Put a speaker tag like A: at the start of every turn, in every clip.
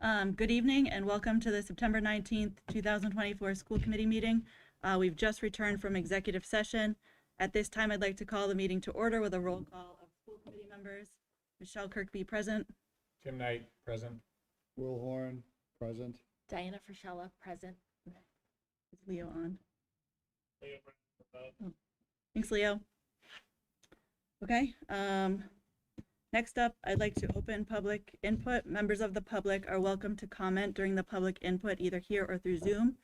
A: Um, Good evening and welcome to the September 19th, 2024 School Committee meeting. Uh, We've just returned from executive session. At this time, I'd like to call the meeting to order with a roll call of school committee members. Michelle Kirkby, present.
B: Tim Knight, present.
C: Will Horn, present.
D: Diana Frischella, present.
A: Is Leo on? Oh. Thanks, Leo. Okay, um, next up, I'd like to open public input. Members of the public are welcome to comment during the public input either here or through Zoom.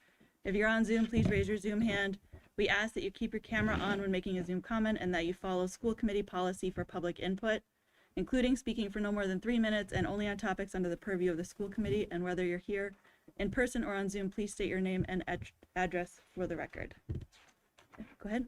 A: If you're on Zoom, please raise your Zoom hand. We ask that you keep your camera on when making a Zoom comment and that you follow school committee policy for public input, including speaking for no more than three minutes and only on topics under the purview of the school committee. And whether you're here in person or on Zoom, please state your name and ad- address for the record. Go ahead.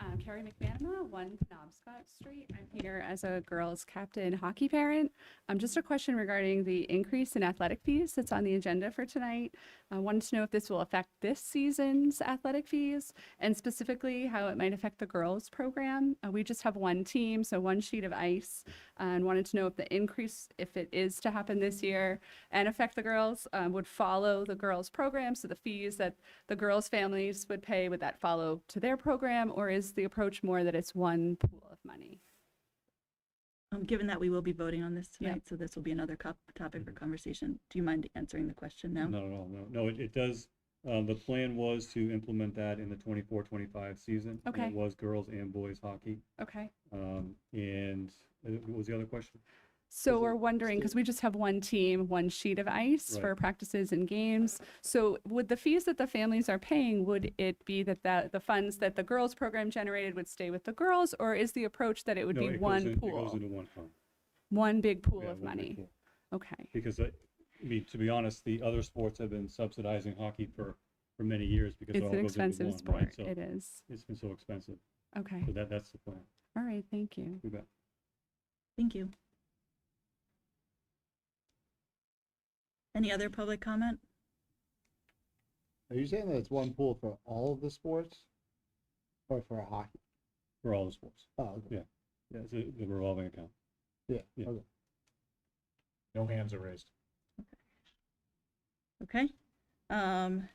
E: Um, Carrie McManama, one Knobscot Street. I'm here as a girls captain hockey parent. Um, just a question regarding the increase in athletic fees that's on the agenda for tonight. I wanted to know if this will affect this season's athletic fees and specifically how it might affect the girls program. Uh, we just have one team, so one sheet of ice, uh, and wanted to know if the increase, if it is to happen this year and affect the girls, um, would follow the girls program. So the fees that the girls' families would pay, would that follow to their program, or is the approach more that it's one pool of money?
A: Um, given that we will be voting on this
E: Yeah.
A: tonight, so this will be another cop- topic for conversation. Do you mind answering the question now?
F: Not at all, no. No, it, it does, um, the plan was to implement that in the 24-25 season. and
E: Okay.
F: It was girls and boys hockey.
E: Okay.
F: Um, and uh, what was the other question?
E: So
F: Is it
E: we're wondering, because we just have one team, one sheet of ice
F: Right.
E: for practices and games. So would the fees that the families are paying, would it be that, that the funds that the girls' program generated would stay with the girls, or is the approach that it would
F: No, it
E: be
F: goes in-
E: one
F: It goes
E: pool,
F: into one fund.
E: one big pool
F: Yeah,
E: of
F: one big
E: money?
F: pool.
E: Okay.
F: Because, uh, I mean, to be honest, the other sports have been subsidizing hockey for, for many years because it
E: It's
F: all
E: an
F: goes into
E: expensive
F: one, right?
E: sport.
F: So
E: It is.
F: it's been so expensive.
E: Okay.
F: So that, that's the plan.
E: All right. Thank you.
F: You bet.
A: Thank you. Any other public comment?
C: Are you saying that it's one pool for all of the sports? Or for hockey?
F: For all the sports.
C: Oh, okay.
F: Yeah. Yeah, it's a the revolving account.
C: yeah,
F: Yeah.
C: okay.
B: No hands are raised.
A: Okay. Um,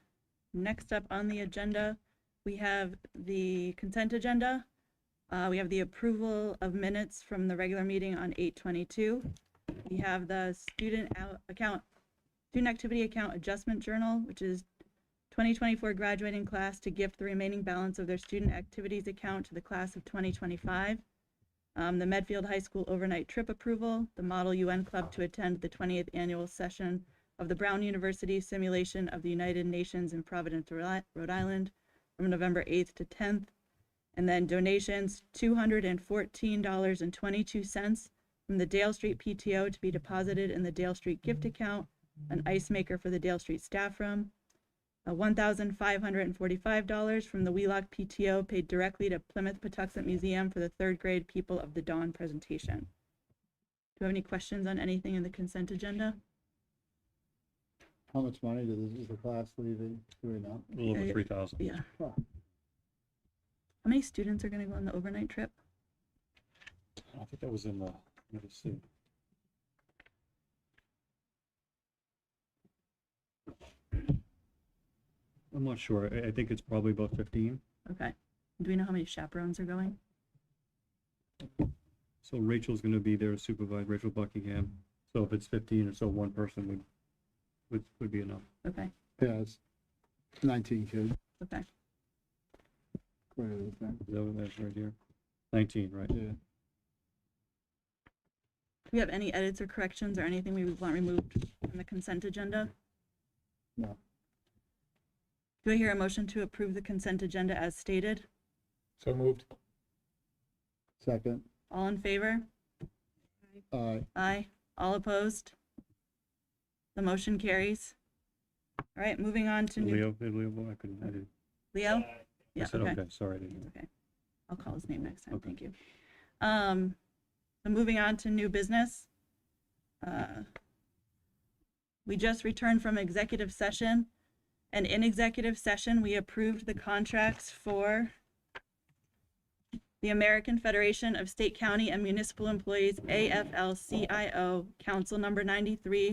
A: next up on the agenda, we have the consent agenda. Uh, we have the approval of minutes from the regular meeting on eight twenty-two. We have the student out account, student activity account adjustment journal, which is twenty twenty-four graduating class to gift the remaining balance of their student activities account to the class of twenty twenty-five. Um, the Medfield High School overnight trip approval, the Model UN Club to attend the twentieth annual session of the Brown University Simulation of the United Nations in Providence, Rhode Rhode Island from November 8th to 10th. And then donations, $214.22 from the Dale Street PTO to be deposited in the Dale Street gift account, an ice maker for the Dale Street staff room, uh, $1,545 from the Wheelock PTO paid directly to Plymouth Patuxent Museum for the third grade People of the Dawn presentation. Do you have any questions on anything in the consent agenda?
C: How much money does, is the class leaving? Do we know?
F: A little
A: Yeah,
F: over
A: yeah.
F: three thousand.
A: Yeah.
C: Huh.
A: How many students are going to go on the overnight trip?
F: I think that was in the, let me see. I'm not sure. I, I think it's probably about fifteen.
A: Okay. Do we know how many chaperones are going?
F: So Rachel's gonna be there to supervise Rachel Buckingham. So if it's fifteen or so, one person would, would, would be enough.
A: Okay.
C: Yeah, it's nineteen kids.
A: Okay.
C: according to the thing.
F: Is that what that's right here? Nineteen, right?
C: Yeah.
A: Do we have any edits or corrections or anything we would want removed from the consent agenda?
C: No.
A: Do I hear a motion to approve the consent agenda as stated?
B: So moved.
C: Second,
A: All in favor?
C: uh,
A: Aye. All opposed? The motion carries. All right, moving on to new-
F: Leo, did Leo, vote? I couldn't, I didn't.
A: Leo?
F: I
A: Yeah,
F: said, okay, sorry, I didn't.
A: It's okay. I'll call his name next time.
F: Okay.
A: Thank you. Um, so moving on to new business. Uh, We just returned from executive session and in executive session, we approved the contracts for the American Federation of State, County, and Municipal Employees, AFL-CIO, Council Number 93,